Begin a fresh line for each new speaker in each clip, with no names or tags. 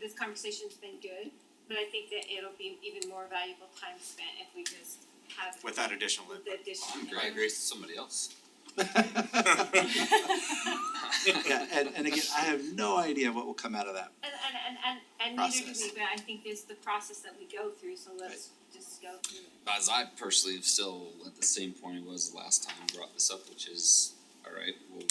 this conversation's been good, but I think that it'll be even more valuable time spent if we just have
with that additional
the
input.
addition.
Great grace to somebody else.
Yeah, and and again, I have no idea what will come out of that.
And and and and and neither do we,
Process.
but I think it's the process that we go through, so let's just go through it.
As I personally am still at the same point I was the last time I brought this up, which is, alright, well,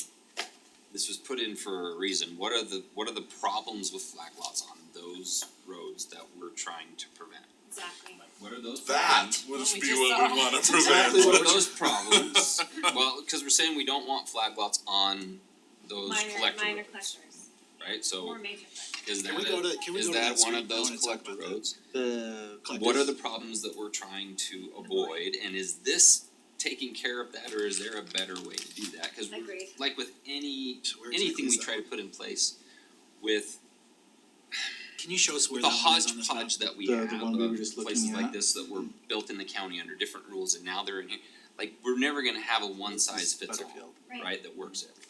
this was put in for a reason. What are the, what are the problems with flag lots on those roads that we're trying to prevent?
Exactly.
What are those
That
problems?
Well,
Well,
this
we
be
just
what we
saw.
wanna
Exactly what
prevent.
are those problems? Well, cause we're saying we don't want flag lots on those collector
Minor minor
roads,
clusters,
right?
more
So
major clusters.
is that
Can we go to-
a,
can we
is
go to
that
that
one
street?
of
I
those
wanna talk
collector
about that.
roads?
The collective-
What are the problems that we're trying to avoid, and is this taking care of that, or is there a better way to do that? Cause we're-
Agreed.
like with any,
So where exactly
anything
is
we
that?
try to put in place with
Can you show us where
the
that one is on this map?
hodgepodge that we
The- the
have
one we were
of
just looking
places like
at?
this that were built in the county under different rules and now they're in here, like, we're never gonna have a one size fits all,
Butterfield.
Right.
right, that works everywhere.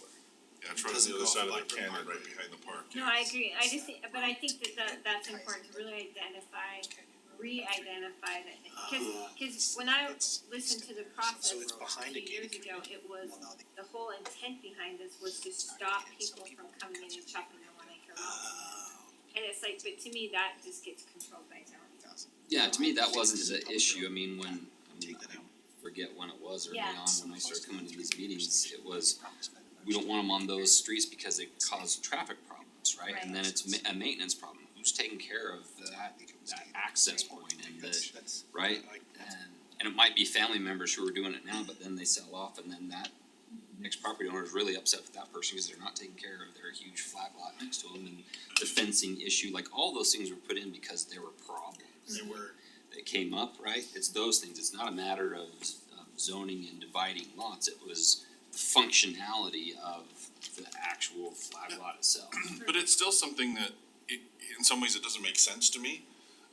Yeah, it's right on
Doesn't
the other
go
side of
off
the
like
canyon,
Margaret.
right behind the park.
No, I agree, I just, think- but I think that that that's important to really identify, re-identify that, cause
Yeah.
cause when I
It's-
listened to the process
So it's behind
two
a gated
years ago, it was,
Well, no, they-
the whole intent behind this was to stop people from coming in and chopping their one acre lot.
Oh,
And it's like, but to me, that just gets controlled by zoning.
Yeah, to me, that wasn't the issue, I mean, when, I mean,
Take that
I
out.
forget when it was early
Yeah.
on, when I started coming to these meetings, it was we don't want them on those streets because they cause traffic problems, right? And then it's ma- a maintenance problem, who's taking care of that, that access point and the, right? And, and it might be family members who are doing it now, but then they sell off and then that next property owner is really upset with that person because they're not taking care of their huge flag lot next to them and the fencing issue, like all those things were put in because there were problems
They were,
that came up, right? It's those things, it's not a matter of of zoning and dividing lots, it was the functionality of the actual flag lot itself.
But it's still something that, i in some ways, it doesn't make sense to me.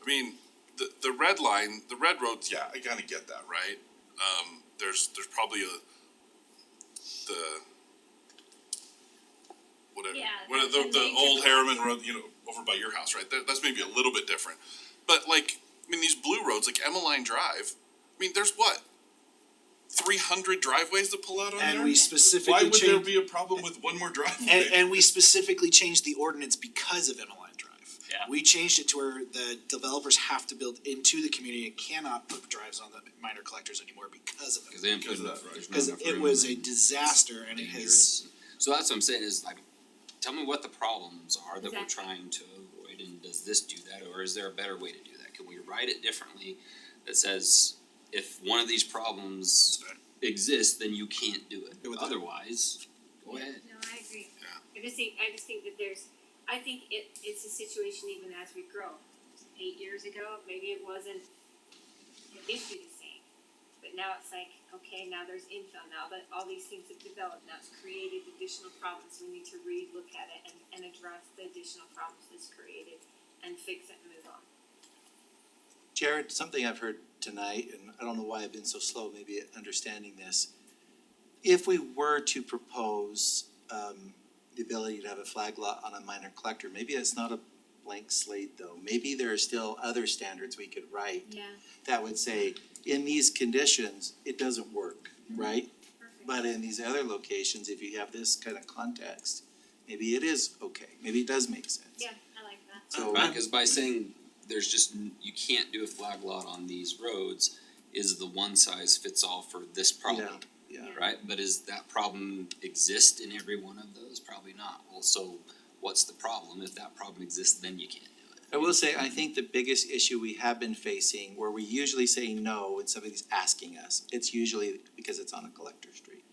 I mean, the, the red line, the red roads, yeah, I kinda get that, right? Um, there's, there's probably a, the, whatever,
Yeah,
what,
the-
the,
the
the
nature
old
of-
Harriman Road, you know, over by your house, right? That, that's maybe a little bit different. But like, I mean, these blue roads, like Emmeline Drive, I mean, there's what? Three hundred driveways that pull out on there?
and we
Why
specifically
would there
changed,
be a problem with one more driveway?
and and we specifically changed the ordinance because of Emmeline Drive.
Yeah.
We changed it to where the developers have to build into the community and cannot put drives on the minor collectors anymore because of
Cause
it.
they didn't put
Because of
enough,
that, right.
there's not
Cause
enough
it
room
was a
and
disaster and it has,
dangerous. So that's what I'm saying is like, tell me what the problems are that we're
Exactly.
trying to avoid and does this do that or is there a better way to do that? Can we write it differently that says if one of these problems exists, then you can't do
Good
it,
with that.
otherwise, go ahead.
No, I agree.
Yeah.
I just think, I just think that there's, I think it, it's a situation even as we grow. Eight years ago, maybe it wasn't an issue the same, but now it's like, okay, now there's infill, now that all these things have developed, now it's created additional problems, we need to relook at it and, and address the additional problems that's created and fix it and move on.
Jared, something I've heard tonight, and I don't know why I've been so slow maybe at understanding this. If we were to propose um the ability to have a flag lot on a minor collector, maybe it's not a blank slate though. Maybe there are still other standards we could write
Yeah,
that would say, in these conditions, it doesn't work, right?
perfect.
But in these other locations, if you have this kind of context, maybe it is okay, maybe it does make sense.
Yeah, I like that.
So
Right, cause by saying there's just, n- you can't do a flag lot on these roads is the one size fits all for this problem,
Yeah,
Yeah.
right? But is that problem exist in every one of those? Probably not. Well, so what's the problem? If that problem exists, then you can't do it.
I will say, I think the biggest issue we have been facing, where we usually say no when somebody's asking us, it's usually because it's on a collector street.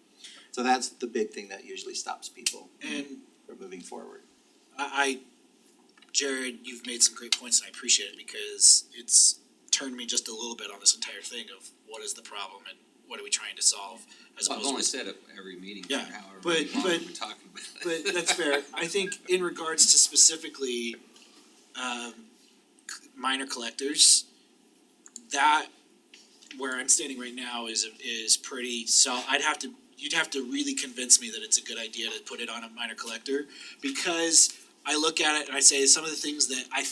So that's the big thing that usually stops people
and
from moving forward.
I, I, Jared, you've made some great points, and I appreciate it because it's turned me just a little bit on this entire thing of what is the problem and what are we trying to solve as
Well,
opposed
I've
to.
only said it every meeting for
Yeah,
however
but-
long
but-
we're talking about it.
But that's fair. I think in regards to specifically um c- minor collectors, that where I'm standing right now is is pretty so I'd have to you'd have to really convince me that it's a good idea to put it on a minor collector because I look at it and I say some of the things that I